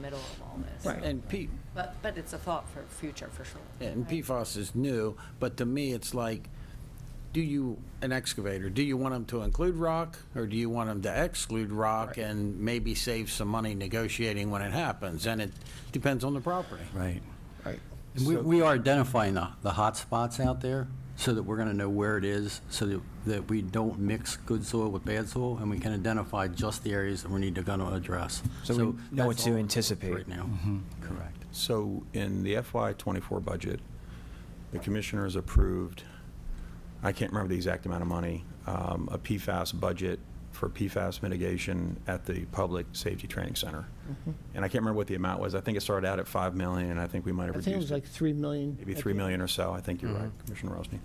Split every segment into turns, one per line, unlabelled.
middle of all this.
Right.
And P,
But, but it's a thought for future, for sure.
and PFAS is new, but to me, it's like, do you, an excavator, do you want them to include rock, or do you want them to exclude rock and maybe save some money negotiating when it happens? And it depends on the property.
Right.
Right.
And we, we are identifying the, the hot spots out there, so that we're gonna know where it is, so that, that we don't mix good soil with bad soil, and we can identify just the areas that we need to gonna address.
So we know what
that's
to
all
anticipate. Mm-hmm.
Right now, correct.
So in the FY '24 budget, the commissioners approved, I can't remember the exact amount of money, um, a PFAS budget for PFAS mitigation at the Public Safety Training Center.
Mm-hmm.
And I can't remember what the amount was. I think it started out at 5 million, and I think we might have
I
reduced
think it was like 3 million.
maybe
at the Mm-hmm.
3 million or so. I think you're right, Commissioner Rosny.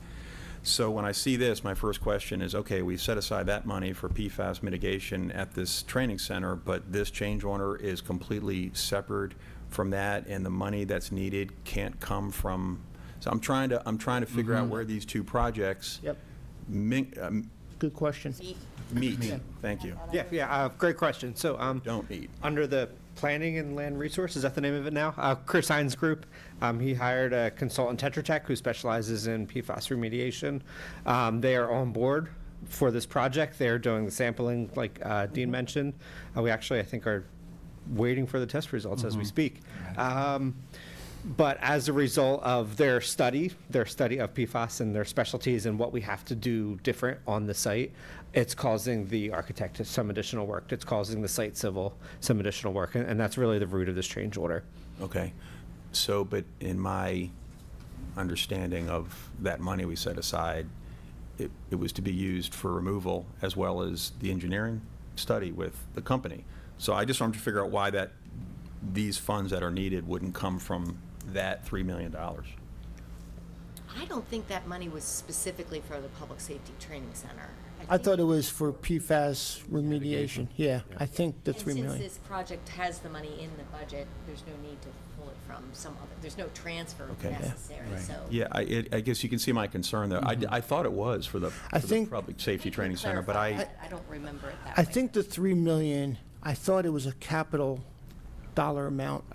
So when I see this, my first question is, okay, we set aside that money for PFAS mitigation at this training center, but this change order is completely separate from that, and the money that's needed can't come from, so I'm trying to, I'm trying to figure out where these two projects
Mm-hmm. Yep,
min- um,
good question.
meet. Thank you.
Yeah, yeah, uh, great question. So, um,
Don't eat.
Under the Planning and Land Resources, is that the name of it now? Uh, Chris Hines Group, um, he hired a consultant Tetra Tech who specializes in PFAS remediation. Um, they are on board for this project. They're doing the sampling, like, uh, Dean mentioned. Uh, we actually, I think, are waiting for the test results as we
Mm-hmm.
speak. Um, but as a result of their study, their study of PFAS and their specialties and what we have to do different on the site, it's causing the architect some additional work. It's causing the site civil some additional work. And, and that's really the root of this change order.
Okay. So, but in my understanding of that money we set aside, it, it was to be used for removal as well as the engineering study with the company. So I just wanted to figure out why that, these funds that are needed wouldn't come from that $3 million.
I don't think that money was specifically for the Public Safety Training Center.
I
think-
thought it was for PFAS remediation, yeah, I think the 3
And
million.
since this project has the money in the budget, there's no need to pull it from some other, there's no transfer
Okay. Yeah.
necessary, so.
Yeah, I, it- I guess you can see my concern there. I, I thought it was for the,
I
for the
think-
Public Safety
Thank you
Training
for
Center, but
clarifying
I,
that. I don't remember it that
I
way.
think the 3 million, I thought it was a capital dollar amount.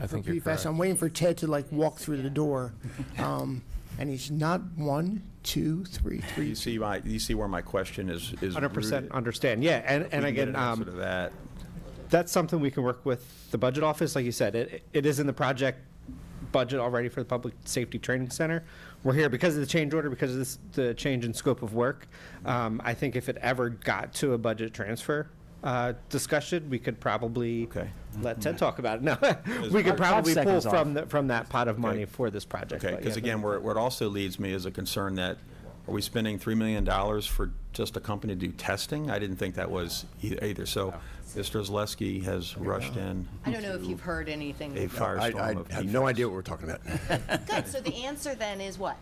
I
for
think you're
PFAS.
correct.
I'm waiting for Ted to like walk through the door, um, and he's not one, two, three,
you
three.
see my, you see where my question is, is
Hundred percent
rooted.
understand. Yeah, and, and
We can get
again,
an answer to
um,
that.
that's something we can work with the budget office. Like you said, it, it is in the project budget already for the Public Safety Training Center. We're here because of the change order, because of this, the change in scope of work. Um, I think if it ever got to a budget transfer, uh, discussion, we could probably
Okay. Mm-hmm.
let Ted talk about it. No, we could probably pull
seconds
from, the- from that pot of money
Okay.
for this project.
Okay,
but
because
yeah.
again, where, where it also leads me is a concern that, are we spending $3 million for just a company to do testing? I didn't think that was e- either, so Mr. Zaleski has rushed in
I don't know if you've heard anything.
a
I,
firestorm of
I have no
PFAS.
idea what we're talking about.
Good, so the answer then is what?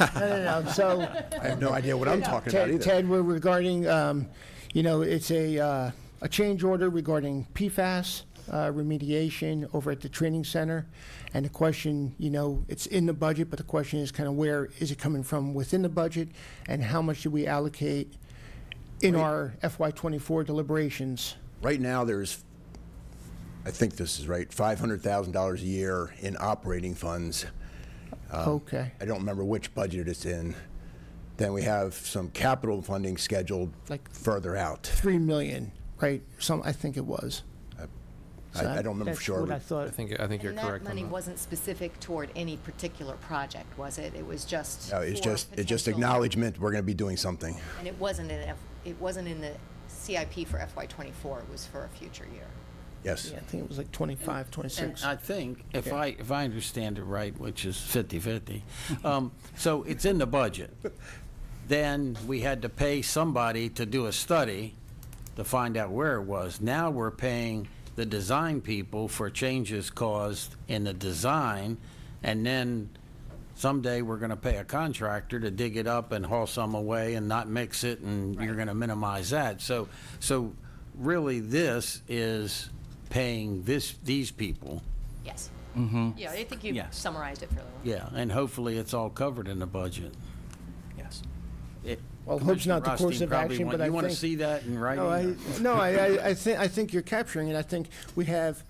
No, no, no, so,
I have no idea what I'm talking about
Ted,
either.
Ted, we're regarding, um, you know, it's a, uh, a change order regarding PFAS uh, remediation over at the training center. And the question, you know, it's in the budget, but the question is kind of where is it coming from within the budget? And how much do we allocate in our FY twenty-four deliberations?
Right now, there's, I think this is right, $500,000 a year in operating funds.
Okay,
Um, I don't remember which budget it's in. Then we have some capital funding scheduled
Like-
further out.
three million, right? Some, I think it was. So
I, I don't remember for
that's
sure.
what I
but
thought.
I think, I think you're
And that
correct on
money
that.
wasn't specific toward any particular project, was it? It was just.
no, Uh, it's
for
just, it's just
potential-
acknowledgement, we're going to be doing something.
And it wasn't in, F- it wasn't in the CIP for FY twenty-four, it was for a future year.
Yes.
Yeah, I think it was like twenty-five,
And
twenty-six.
I think, if I, if I understand it right, which is 50/50, um, so it's in the budget. Then we had to pay somebody to do a study to find out where it was. Now we're paying the design people for changes caused in the design, and then someday we're gonna pay a contractor to dig it up and haul some away and not mix it, and you're gonna minimize that. So, so really, this is paying this, these people,
Yes. Mm-hmm. Yeah, I think you summarized it fairly well.
yeah, and hopefully it's all covered in the budget.
Yes.
It-
Well, hope's not the
Commissioner
course
Rothstein
of
probably
action,
want-
but I
You wanna
think-
see that in writing?
No,
or-
I, no, I, I, I think, I think you're capturing it. I think we have